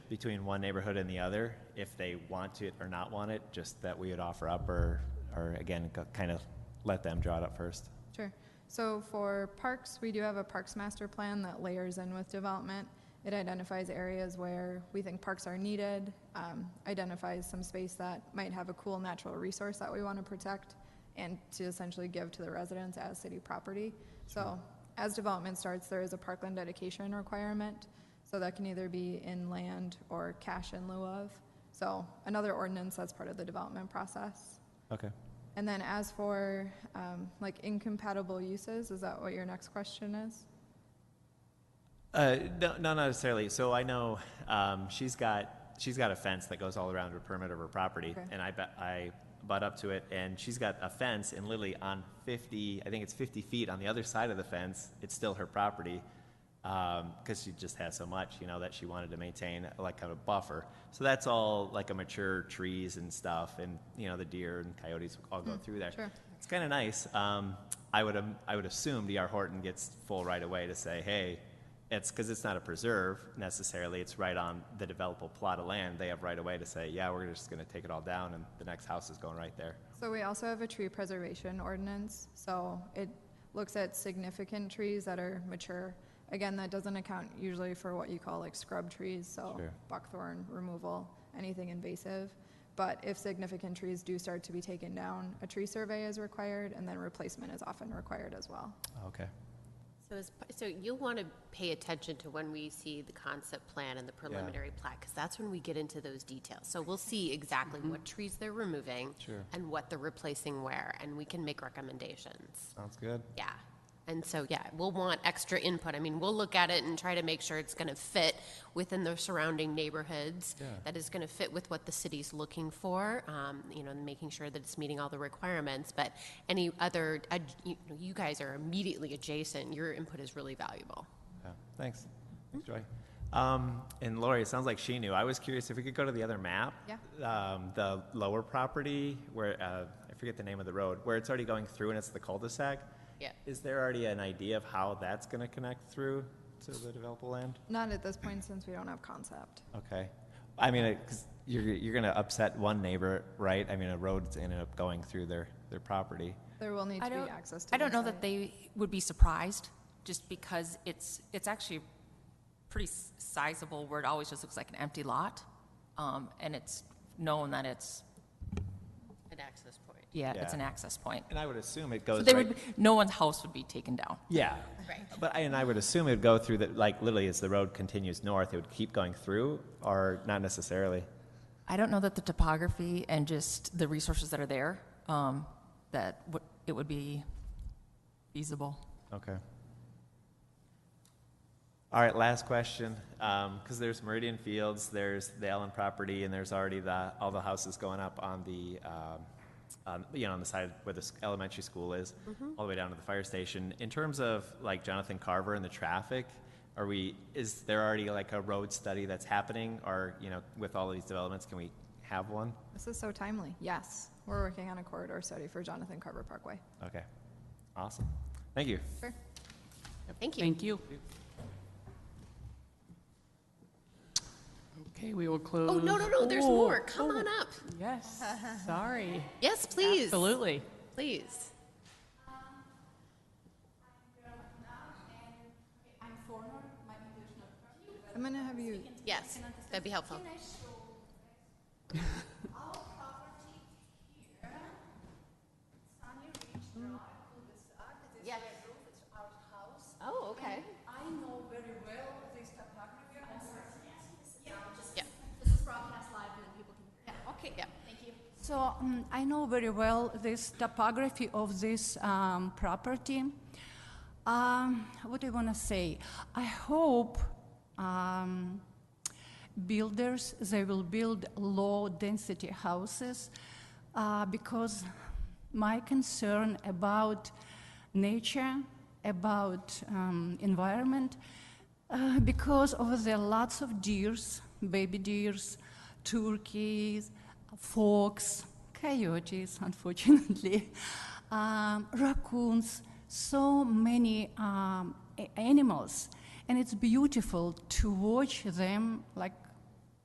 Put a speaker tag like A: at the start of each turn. A: between one neighborhood and the other, if they want it or not want it, just that we would offer up or, or again, kind of let them draw it up first.
B: Sure. So for parks, we do have a parks master plan that layers in with development. It identifies areas where we think parks are needed, um, identifies some space that might have a cool natural resource that we want to protect and to essentially give to the residents as city property. So as development starts, there is a parkland dedication requirement. So that can either be in land or cash in lieu of. So another ordinance that's part of the development process.
A: Okay.
B: And then as for, um, like incompatible uses, is that what your next question is?
A: Uh, no, not necessarily. So I know um, she's got she's got a fence that goes all around her permit of her property,
B: Okay.
A: and I bet I butt up to it, and she's got a fence, and literally on fifty, I think it's fifty feet on the other side of the fence, it's still her property, because she just has so much, you know, that she wanted to maintain like kind of a buffer. So that's all like a mature trees and stuff, and you know the deer and coyotes all go through there.
B: sure.
A: It's kind of nice. Um, I would, am- I would assume D.R. Horton gets full right away to say, hey, it's, because it's not a preserve necessarily, it's right on the developable plot of land, they have right away to say, yeah, we're just gonna take it all down and the next house is going right there.
B: So we also have a tree preservation ordinance, so it looks at significant trees that are mature. Again, that doesn't account usually for what you call like scrub trees, so
A: Sure.
B: buckthorn removal, anything invasive. But if significant trees do start to be taken down, a tree survey is required, and then replacement is often required as well.
A: Okay.
C: So is, so you'll want to pay attention to when we see the concept plan and the preliminary plat, because that's when we get into those details. So we'll see exactly what trees they're removing.
A: Sure.
C: And what they're replacing where, and we can make recommendations.
A: Sounds good.
C: Yeah. And so, yeah, we'll want extra input. I mean, we'll look at it and try to make sure it's going to fit within the surrounding neighborhoods.
A: Yeah.
C: That is going to fit with what the city's looking for, um, you know, and making sure that it's meeting all the requirements. But any other, ad- you know, you guys are immediately adjacent. Your input is really valuable.
A: Yeah, thanks. Thanks, Joy. Um, and Lori, it sounds like she knew. I was curious if we could go to the other map.
B: Yeah.
A: Um, the lower property where, uh, I forget the name of the road, where it's already going through and it's the cul-de-sac.
C: Yeah.
A: Is there already an idea of how that's gonna connect through to the developable land?
B: Not at this point, since we don't have concept.
A: Okay. I mean, it- 'cause you're, you're gonna upset one neighbor, right? I mean, a road's ended up going through their, their property.
B: There will need
D: I
B: to be
D: don't,
B: access to
D: I don't
B: their
D: know
B: site.
D: that they would be surprised, just because it's, it's actually pretty s- sizable, where it always just looks like an empty lot. Um, and it's known that it's,
C: An access point.
D: yeah,
A: Yeah.
D: it's an access point.
A: And I would assume it
D: So
A: goes
D: they would,
A: right.
D: be- no one's house would be taken down.
A: Yeah.
C: Right.
A: But, I- and I would assume it'd go through the, like, literally as the road continues north, it would keep going through, or not necessarily?
D: I don't know that the topography and just the resources that are there, um, that would, it would be feasible.
A: Okay. All right, last question, because there's Meridian Fields, there's the Allen property, and there's already the, all the houses going up on the, um, on, you know, on the side where the s- elementary school is, all the way down to the fire station. In terms of like Jonathan Carver and the traffic, are we, is there already like a road study that's happening? Or, you know, with all of these developments, can we have one?
B: This is so timely. Yes, we're working on a corridor study for Jonathan Carver Parkway.
A: Okay, awesome. Thank you.
B: Sure.
C: Thank you.
E: Thank you. Okay, we will close.
C: Oh, no, no, no, there's
E: Oh,
C: more. Come
E: oh,
C: on up.
E: Yes, sorry.
C: Yes, please.
E: Absolutely.
C: Please.
B: I'm gonna have you,
C: Yes, that'd be helpful. Yes. Oh, okay.
F: I know very well this topography.
C: Yeah,
F: This is broadcast live and then people can hear. Okay.
C: yeah.
F: So um, I know very well this topography of this um, property. Um, what do I want to say? I hope um, builders they will build low density houses uh, because my concern about nature, about um, environment, uh, because of the lots of deers, baby deers, turkeys, fox, coyotes, unfortunately, um, raccoons, so many um, a- animals. And it's beautiful to watch them like